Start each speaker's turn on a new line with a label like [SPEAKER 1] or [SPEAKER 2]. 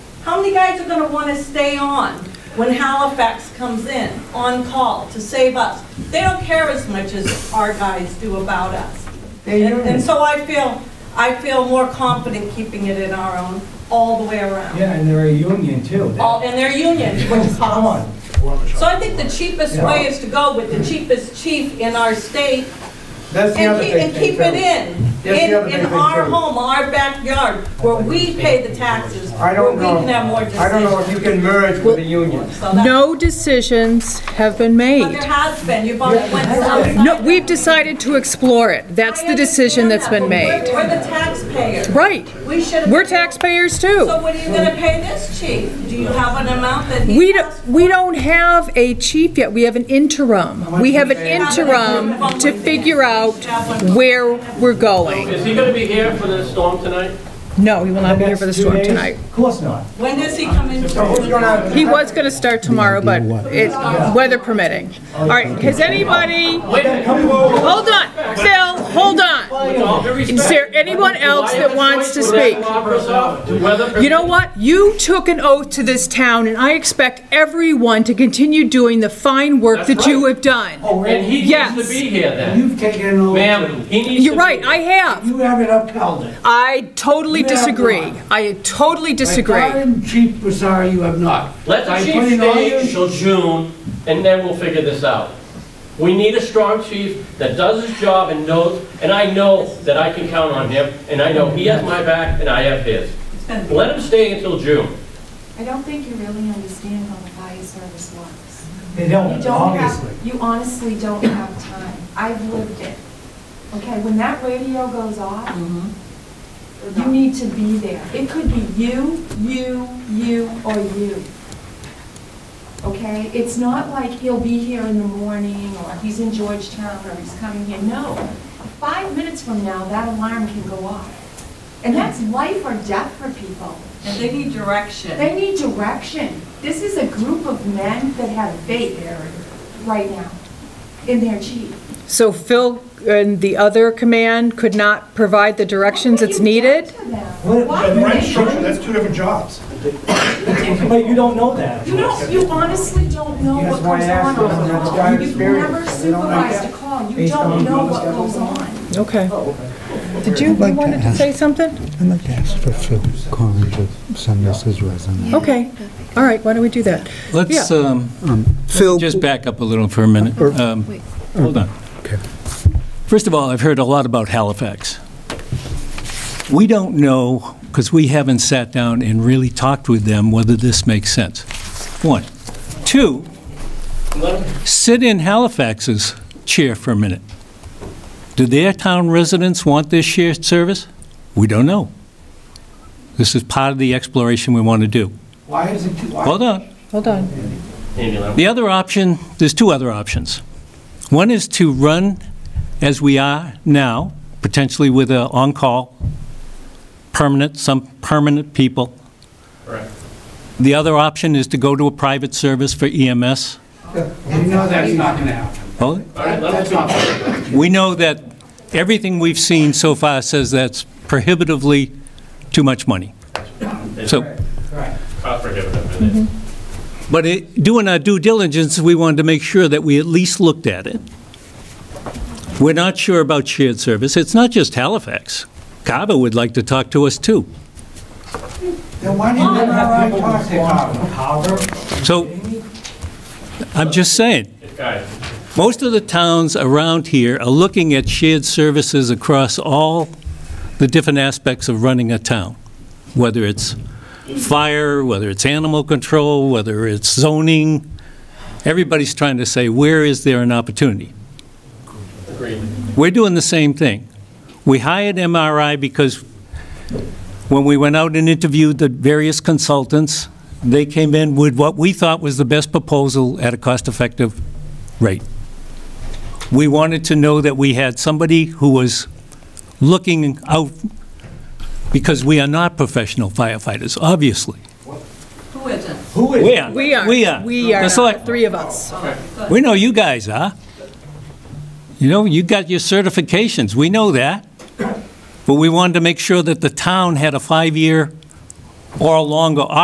[SPEAKER 1] How many guys are gonna wanna stay on when Halifax comes in, on call, to save us? They don't care as much as our guys do about us.
[SPEAKER 2] They
[SPEAKER 1] And- And
[SPEAKER 2] do.
[SPEAKER 1] so I feel, I feel more confident keeping it in our own, all the way around.
[SPEAKER 2] Yeah, and they're a union too.
[SPEAKER 1] All, and their union, which is
[SPEAKER 2] Come on.
[SPEAKER 1] So I think the cheapest way is to go with the cheapest chief in our state
[SPEAKER 3] That's the
[SPEAKER 1] and
[SPEAKER 3] other
[SPEAKER 1] keep,
[SPEAKER 3] big
[SPEAKER 1] and keep
[SPEAKER 3] thing,
[SPEAKER 1] it
[SPEAKER 3] too.
[SPEAKER 1] in.
[SPEAKER 3] That's the other
[SPEAKER 1] In,
[SPEAKER 3] big
[SPEAKER 1] in
[SPEAKER 3] thing,
[SPEAKER 1] our
[SPEAKER 3] too.
[SPEAKER 1] home, our backyard, where we pay the taxes,
[SPEAKER 3] I
[SPEAKER 1] where
[SPEAKER 3] don't
[SPEAKER 1] we
[SPEAKER 3] know,
[SPEAKER 1] can have more
[SPEAKER 3] I don't know if
[SPEAKER 1] decisions.
[SPEAKER 3] you can merge with the union.
[SPEAKER 1] So that-
[SPEAKER 4] No decisions have been
[SPEAKER 1] But there
[SPEAKER 4] made.
[SPEAKER 1] has been, you've already went outside.
[SPEAKER 4] No, we've decided to explore it. That's the decision that's been made.
[SPEAKER 1] We're the taxpayers.
[SPEAKER 4] Right.
[SPEAKER 1] We should.
[SPEAKER 4] We're taxpayers too.
[SPEAKER 1] So what are you gonna pay this chief? Do you have an amount that he
[SPEAKER 4] We
[SPEAKER 1] asked
[SPEAKER 4] don't,
[SPEAKER 1] for?
[SPEAKER 4] we don't have a chief yet. We have an interim. We have an interim to figure out where we're going.
[SPEAKER 5] Is he gonna be here for the storm tonight?
[SPEAKER 4] No, he will not be here for the
[SPEAKER 2] Next two
[SPEAKER 4] storm
[SPEAKER 2] days?
[SPEAKER 4] tonight.
[SPEAKER 2] Of course not.
[SPEAKER 1] When does he come in?
[SPEAKER 3] So who's gonna?
[SPEAKER 4] He was going to start tomorrow, but it, weather permitting. All right, has anybody,
[SPEAKER 5] Wait a minute,
[SPEAKER 4] hold on, Phil, hold on.
[SPEAKER 5] with all due
[SPEAKER 4] Is
[SPEAKER 5] respect.
[SPEAKER 4] there anyone else that wants to speak? You know what? You took an oath to this town, and I expect everyone to continue doing the fine work that
[SPEAKER 5] That's
[SPEAKER 4] you
[SPEAKER 5] right.
[SPEAKER 4] have done.
[SPEAKER 2] Oh,
[SPEAKER 5] And
[SPEAKER 2] really?
[SPEAKER 5] he
[SPEAKER 4] Yes.
[SPEAKER 5] needs to be here then.
[SPEAKER 2] You've taken over.
[SPEAKER 5] Ma'am, he needs to be.
[SPEAKER 4] You're right, I have.
[SPEAKER 2] You haven't upheld it.
[SPEAKER 4] I totally
[SPEAKER 2] You have
[SPEAKER 4] disagree.
[SPEAKER 2] not.
[SPEAKER 4] I totally disagree.
[SPEAKER 2] I'm Chief Basari, you have not.
[SPEAKER 5] Let the
[SPEAKER 2] I
[SPEAKER 5] chief
[SPEAKER 2] put in all your-
[SPEAKER 5] stay till June, and then we'll figure this out. We need a strong chief that does his job and knows, and I know that I can count on him, and I know he has my back and I have his. Let him stay until June.
[SPEAKER 6] I don't think you really understand how the fire service works.
[SPEAKER 2] They
[SPEAKER 6] You
[SPEAKER 2] don't,
[SPEAKER 6] don't
[SPEAKER 2] Oh, obviously.
[SPEAKER 6] have, you honestly don't have time. I've lived it. Okay, when that radio goes off, you need to be there. It could be you, you, you, or you. Okay? It's not like he'll be here in the morning, or he's in Georgetown, or he's coming here. No. Five minutes from now, that alarm can go off. And that's life or death for people.
[SPEAKER 1] And they need direction.
[SPEAKER 6] They need direction. This is a group of men that have faith right now in their chief.
[SPEAKER 4] So Phil and the other command could not provide the directions
[SPEAKER 6] What
[SPEAKER 4] that's
[SPEAKER 6] have you done
[SPEAKER 4] needed?
[SPEAKER 6] to them?
[SPEAKER 2] What-
[SPEAKER 6] Why
[SPEAKER 2] the
[SPEAKER 6] do
[SPEAKER 2] rent
[SPEAKER 6] they-
[SPEAKER 2] structure,
[SPEAKER 7] That's two different jobs.
[SPEAKER 2] But you don't know that.
[SPEAKER 6] You don't, you honestly don't know
[SPEAKER 2] Yes,
[SPEAKER 6] what
[SPEAKER 2] why
[SPEAKER 6] goes
[SPEAKER 2] I asked
[SPEAKER 6] on
[SPEAKER 2] them,
[SPEAKER 6] on the
[SPEAKER 2] that's
[SPEAKER 6] call.
[SPEAKER 2] guy
[SPEAKER 6] You've
[SPEAKER 2] experience.
[SPEAKER 6] never
[SPEAKER 2] They don't like
[SPEAKER 6] supervised a
[SPEAKER 2] that.
[SPEAKER 6] call. You
[SPEAKER 2] Based on
[SPEAKER 6] don't know
[SPEAKER 2] the
[SPEAKER 6] what
[SPEAKER 2] schedule.
[SPEAKER 6] goes on.
[SPEAKER 4] Okay. Did you, you wanted to say something?
[SPEAKER 8] I'd like to ask for Phil Corrin to send us his resume.
[SPEAKER 4] Okay, all right, why don't we do that?
[SPEAKER 9] Let's,
[SPEAKER 4] Yeah.
[SPEAKER 9] um,
[SPEAKER 8] Phil,
[SPEAKER 9] just back up a little for a minute. Um, Hold on.
[SPEAKER 8] Okay.
[SPEAKER 9] First of all, I've heard a lot about Halifax. We don't know, because we haven't sat down and really talked with them, whether this makes sense. One. Two, sit in Halifax's chair for a minute. Do their town residents want this shared service? We don't know. This is part of the exploration we want to do.
[SPEAKER 2] Why is it, why?
[SPEAKER 9] Hold on.
[SPEAKER 4] Hold on.
[SPEAKER 5] Amy, let him-
[SPEAKER 9] The other option, there's two other options. One is to run as we are now, potentially with an on-call, permanent, some permanent people.
[SPEAKER 5] Right.
[SPEAKER 9] The other option is to go to a private service for EMS.
[SPEAKER 2] You know that's not gonna happen.
[SPEAKER 9] Oh,
[SPEAKER 5] All right, let him
[SPEAKER 2] That's not.
[SPEAKER 9] We know that everything we've seen so far says that's prohibitively too much money. So,
[SPEAKER 2] Right.
[SPEAKER 5] talk for a minute.
[SPEAKER 9] but it- doing our due diligence, we wanted to make sure that we at least looked at it. We're not sure about shared service. It's not just Halifax. Cava would like to talk to us, too.
[SPEAKER 2] Then why do you never have people talk to Carver?
[SPEAKER 9] So, I'm just saying,
[SPEAKER 4] Mm-hmm.
[SPEAKER 5] Guys,
[SPEAKER 9] most of the towns around here are looking at shared services across all the different aspects of running a town, whether it's fire, whether it's animal control, whether it's zoning. Everybody's trying to say, where is there an opportunity?
[SPEAKER 5] agreed.
[SPEAKER 9] We're doing the same thing. We hired MRI because when we went out and interviewed the various consultants, they came in with what we thought was the best proposal at a cost-effective rate. We wanted to know that we had somebody who was looking out, because we are not professional firefighters, obviously.
[SPEAKER 1] Who isn't?
[SPEAKER 2] Who is?
[SPEAKER 9] We are.
[SPEAKER 4] We are.
[SPEAKER 9] We are.
[SPEAKER 4] We are,
[SPEAKER 9] The
[SPEAKER 4] the
[SPEAKER 9] select-
[SPEAKER 4] three of us.
[SPEAKER 9] We know you guys are. You know, you got your certifications, we know that. But we wanted to make sure that the town had a five-year or longer